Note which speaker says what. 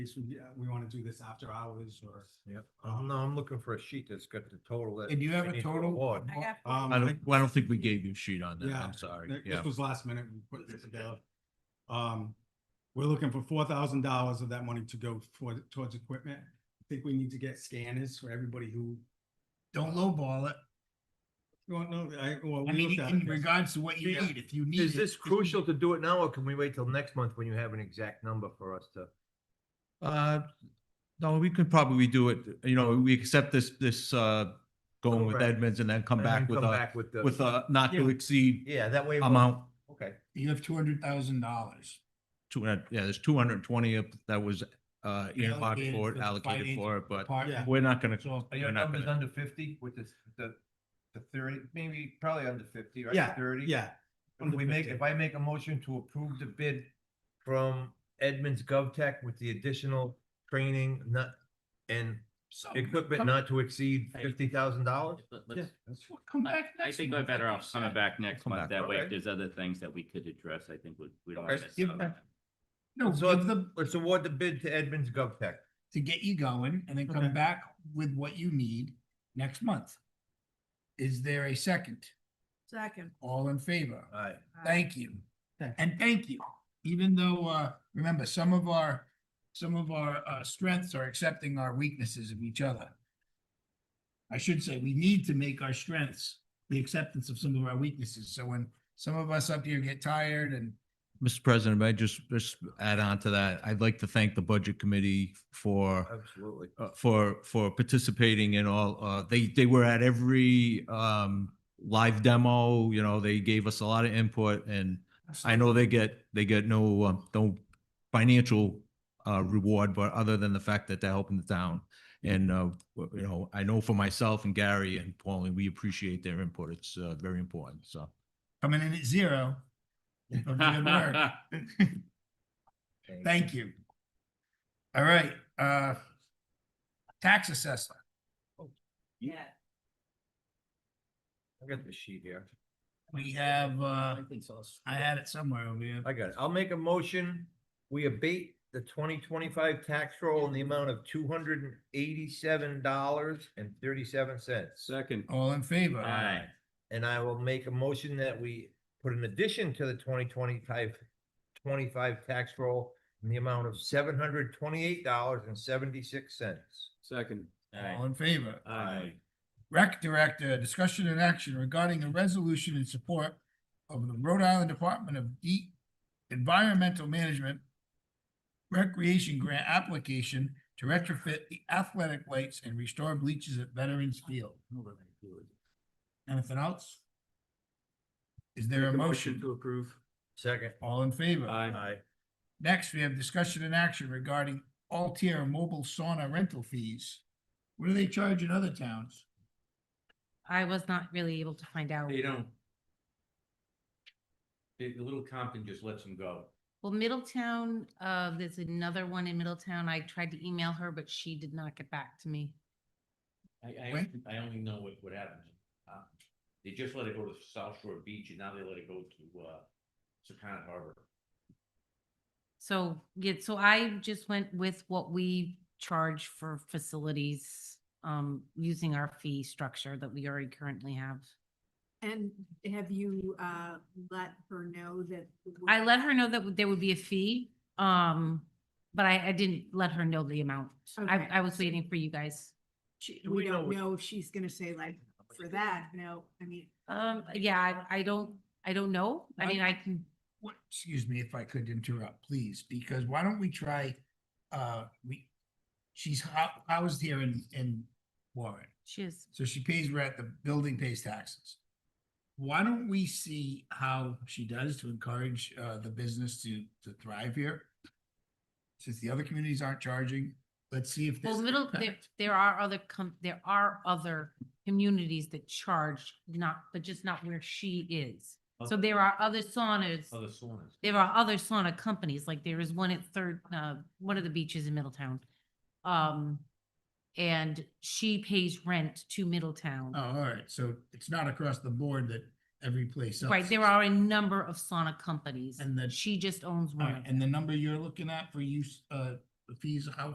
Speaker 1: This would, yeah, we want to do this after hours or.
Speaker 2: Yeah, I'm, no, I'm looking for a sheet that's got the total. that
Speaker 3: And you have a
Speaker 2: they
Speaker 3: total?
Speaker 2: award.
Speaker 4: I got
Speaker 1: Um,
Speaker 5: I don't, well, I don't think we gave you a sheet on that.
Speaker 1: Yeah,
Speaker 5: I'm sorry.
Speaker 1: th-
Speaker 5: Yeah.
Speaker 1: This was last minute, we put this together. Um, we're looking for four thousand dollars of that money to go toward, towards equipment. I think we need to get scanners for everybody who,
Speaker 3: Don't lowball it.
Speaker 1: you don't know, I, well. we
Speaker 3: I mean,
Speaker 1: looked at
Speaker 3: in
Speaker 1: it.
Speaker 3: regards to what you
Speaker 2: Yeah.
Speaker 3: need, if you need.
Speaker 2: Is
Speaker 3: it,
Speaker 2: this
Speaker 3: if you-
Speaker 2: crucial to do it now, or can we wait till next month when you have an exact number for us to?
Speaker 5: Uh, no, we could probably do it, you know, we accept this, this, uh, going with
Speaker 2: Correct.
Speaker 5: Edmonds and then come
Speaker 2: and then
Speaker 5: back with a,
Speaker 2: with the-
Speaker 5: with a not to
Speaker 2: Yeah.
Speaker 5: exceed
Speaker 2: Yeah, that way. we'll-
Speaker 5: amount.
Speaker 2: Okay,
Speaker 3: You have two hundred thousand dollars.
Speaker 5: Two hundred, yeah, there's two hundred and twenty of, that was, uh, earmarked
Speaker 3: Allocated
Speaker 5: for it,
Speaker 3: for the
Speaker 5: allocated
Speaker 3: finance
Speaker 5: for it, but
Speaker 1: Yeah.
Speaker 5: we're not gonna,
Speaker 3: So,
Speaker 2: are your
Speaker 5: we're not
Speaker 2: numbers
Speaker 5: gonna.
Speaker 2: under fifty with this, the, the thirty, maybe probably under fifty, right?
Speaker 1: Yeah,
Speaker 2: Thirty?
Speaker 1: Yeah,
Speaker 2: If we make,
Speaker 1: 150.
Speaker 2: if I make a motion to approve the bid from Edmonds GovTech with the additional training not, and
Speaker 3: so.
Speaker 2: equipment
Speaker 3: come-
Speaker 2: not to exceed fifty thousand dollars?
Speaker 6: Let- let's-
Speaker 3: Come
Speaker 6: I-
Speaker 3: back next.
Speaker 6: I think
Speaker 3: month,
Speaker 6: we're better
Speaker 3: like you
Speaker 6: off coming
Speaker 3: said.
Speaker 6: back next
Speaker 5: Come back,
Speaker 6: month. That way,
Speaker 2: okay.
Speaker 6: if there's other things that we could address, I think we, we don't
Speaker 2: Okay,
Speaker 6: want to miss
Speaker 2: give
Speaker 6: out on
Speaker 2: back-
Speaker 6: that.
Speaker 3: No,
Speaker 2: So-
Speaker 3: give the,
Speaker 2: Let's award the bid to Edmonds GovTech.
Speaker 3: to get you going and then
Speaker 1: Okay.
Speaker 3: come back with what you need next month. Is there a second?
Speaker 4: Second.
Speaker 3: All in favor?
Speaker 2: All right.
Speaker 3: Thank you.
Speaker 1: Thanks.
Speaker 3: And thank you, even though, uh, remember, some of our, some of our, uh, strengths are accepting our weaknesses of each other. I should say, we need to make our strengths the acceptance of some of our weaknesses. So when some of us up here get tired and
Speaker 5: Mr. President, may I just, just add on to that? I'd like to thank the Budget Committee for,
Speaker 2: Absolutely.
Speaker 5: uh, for, for participating in all, uh, they, they were at every, um, live demo, you know, they gave us a lot of input and I know they get, they get no, um, no financial, uh, reward, but other than the fact that they're helping the town. And, uh, w- you know, I know for myself and Gary and Pauline, we appreciate their input. It's, uh, very important, so.
Speaker 3: coming in at zero. it'll be a work. Thank you. All right, uh, tax assessor.
Speaker 6: Yeah.
Speaker 2: I got the sheet here.
Speaker 3: We have, uh, I had it somewhere over here.
Speaker 2: I got it. I'll make a motion. We abate the twenty twenty-five tax roll in the amount of two hundred and eighty-seven dollars and thirty-seven cents.
Speaker 6: Second.
Speaker 3: All in favor?
Speaker 6: Aye.
Speaker 2: And I will make a motion that we put an addition to the 2025 25 tax roll in the amount of seven hundred twenty-eight dollars and seventy-six cents.
Speaker 6: Second.
Speaker 3: All in favor?
Speaker 6: Aye.
Speaker 3: Rec Director, discussion and action regarding a resolution in support of the Rhode Island Department of E- Environmental Management Recreation Grant application to retrofit the athletic lights and restore bleachers at Veterans Field. Anything else? Is there a motion?
Speaker 6: to approve.
Speaker 2: Second.
Speaker 3: All in favor?
Speaker 6: Aye.
Speaker 3: Next, we have discussion and action regarding Altier mobile sauna rental fees. What do they charge in other towns?
Speaker 7: I was not really able to find out.
Speaker 8: They don't. The, the little Compton just lets them go.
Speaker 7: Well, Middletown, uh, there's another one in Middletown. I tried to email her, but she did not get back to me.
Speaker 8: I, I,
Speaker 3: Right.
Speaker 8: I only know what, what happens. Uh, They just let it go to South Shore Beach and now they let it go to, uh, Secana Harbor.
Speaker 7: So, yeah, so I just went with what we charge for facilities, um, using our fee structure that we already currently have.
Speaker 4: And have you, uh, let her know that?
Speaker 7: I let her know that there would be a fee, um, but I, I didn't let her know the amount. I,
Speaker 4: Okay,
Speaker 7: I was
Speaker 4: so-
Speaker 7: waiting for you guys.
Speaker 4: She,
Speaker 2: Do
Speaker 4: we
Speaker 2: we know
Speaker 4: don't
Speaker 2: what-
Speaker 4: know if she's gonna say like, for that, no, I mean,
Speaker 7: Um, yeah, I, I don't, I don't know. I
Speaker 3: I-
Speaker 7: mean, I can,
Speaker 3: What, excuse me if I could interrupt, please, because why don't we try, uh, we, she's hou- housed here in, in Warren.
Speaker 7: she is.
Speaker 3: So she pays rent, the building pays taxes. Why don't we see how she does to encourage, uh, the business to, to thrive here? Since the other communities aren't charging, let's see if.
Speaker 7: Well,
Speaker 3: this-
Speaker 7: middle, there, there are other com, there are other communities that charge not, but just not where she is. So there are other saunas,
Speaker 8: Other saunas.
Speaker 7: there are other sauna companies, like there is one at third, uh, one of the beaches in Middletown. Um, and she pays rent to
Speaker 3: Oh,
Speaker 7: Middletown.
Speaker 3: all right, so it's not across the board that every place else.
Speaker 7: Right, there
Speaker 3: is.
Speaker 7: are a number of sauna companies.
Speaker 3: And the-
Speaker 7: She just owns
Speaker 3: All
Speaker 7: one.
Speaker 3: right,
Speaker 7: of
Speaker 3: and the
Speaker 7: them.
Speaker 3: number you're looking at for use, uh, the fees, how